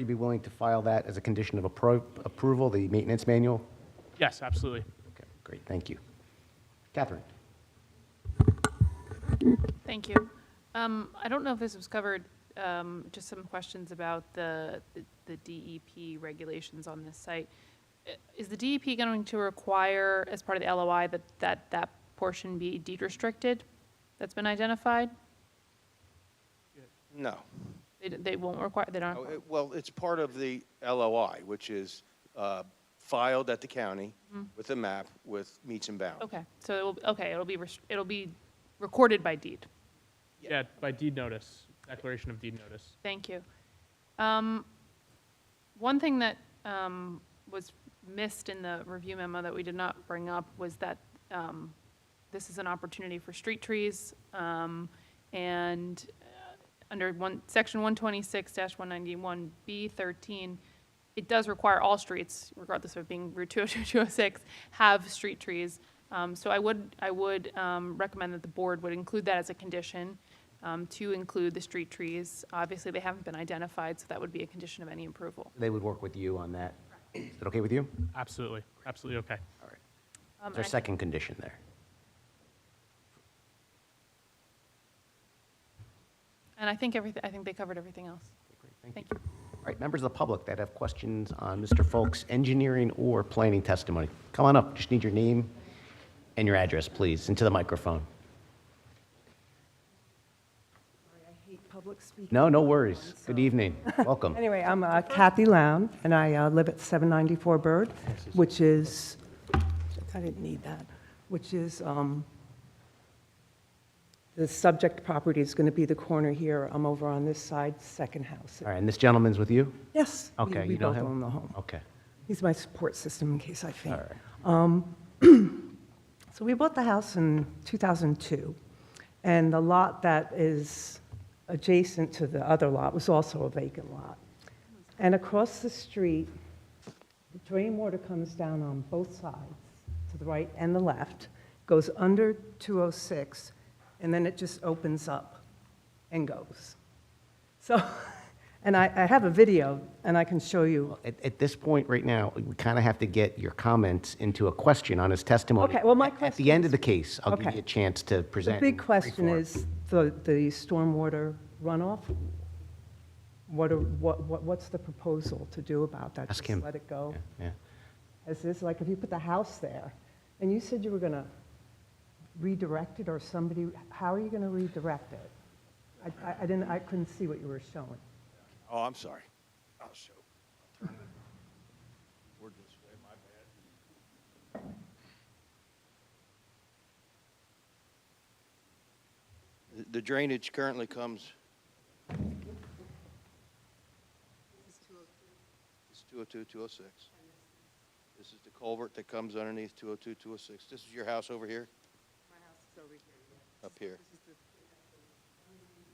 You'd be willing to file that as a condition of appro- approval, the maintenance manual? Yes, absolutely. Okay, great, thank you. Catherine? Thank you. Um, I don't know if this was covered, um, just some questions about the, the DEP regulations on this site. I- Is the DEP going to require, as part of the LOI, that, that, that portion be deed restricted that's been identified? No. They, d- they won't require, they don't, Oh, require- it- Well, it's part of the LOI, which is uh, filed at the county with a map with meets and bounds. okay, so it will, okay, it'll be, rest- it'll be recorded by deed. Yeah, by deed notice, declaration of deed notice. Thank you. Um, One thing that um, was missed in the review memo that we did not bring up was that um, this is an opportunity for street trees. um, And uh, under one, section 126-191B13, it does require all streets, regardless of being Route 202, 206, have street trees. Um, So I would, I would um, recommend that the board would include that as a condition um, to include the street trees. Obviously, they haven't been identified, so that would be a condition of any approval. They would work with you on that. Is that okay with you? Absolutely, absolutely okay. All right. Um, Is there a I- second condition there? And I think everything, I think they covered everything else. Okay, great, Thank you. Thank you. All right, members of the public that have questions on Mr. Folk's engineering or planning testimony, come on up. Just need your name and your address, please, into the microphone. I hate public speaking. No, no worries. Good evening. Welcome. Anyway, I'm uh, Kathy Lown, and I uh, live at 794 Bird, which is, I didn't need that, which is, um, the subject property is going to be the corner here. I'm over on this side, second house. All right, and this gentleman's with you? Yes. we- Okay, We you know both him? own the home. Okay. He's my support system in case I faint. All right. So we bought the house in 2002, and the lot that is adjacent to the other lot was also a vacant lot. And across the street, the drain water comes down on both sides, to the right and the left, goes under 206, and then it just opens up and goes. So, and I, I have a video, and I can show you. At, at this point, right now, we kind of have to get your comments into a question on his testimony. Okay, well, my At- At question the end of the case, I'll give Okay. you a chance to The present. in big brief question form. is the, the stormwater runoff. What, are- what, what- what's the proposal to do about that? Ask Just him. let it go? Yeah, yeah. As this, like, if you put the house there, and you said you were going to redirect it, or somebody, how are you going to redirect it? I- I, I didn't, I couldn't see what you were showing. Oh, I'm sorry. I'll show. The- The drainage currently comes. oh It's 202, 206. This is the culvert that comes underneath 202, 206. This is your house over here? My house is over here, Up here.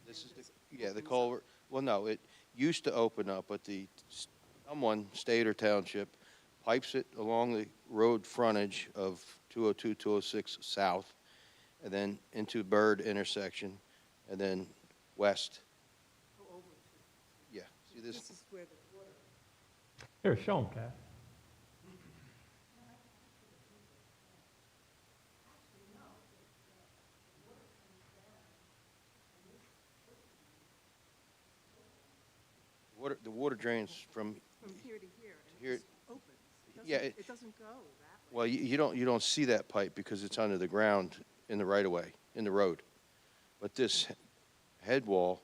This is the, yeah, the culvert, well, no, it used to open up, but the, s- someone, state or township, pipes it along the road frontage of 202, 206 south, and then into Bird intersection, and then west. Yeah, see this? Here, show them, Pat. Water, the water drains from. From here to here. Here. Opens. Yeah. It doesn't go that way. Well, you, you don't, you don't see that pipe because it's under the ground in the right of way, in the road. But this head wall,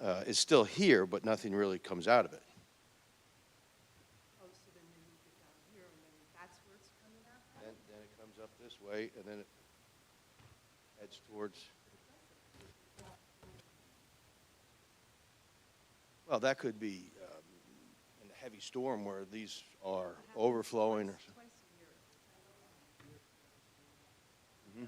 uh, is still here, but nothing really comes out of it. Oh, so then when you get down here and then that's where it's coming out? Then, then it comes up this way and then it heads towards. Well, that could be um, in a heavy storm where these are overflowing. or so- Mhm.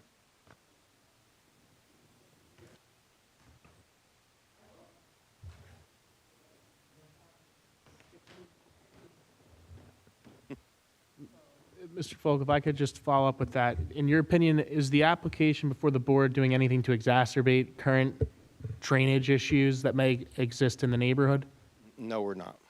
Mr. Folk, if I could just follow up with that. In your opinion, is the application before the board doing anything to exacerbate current drainage issues that may exist in the neighborhood? No, we're not.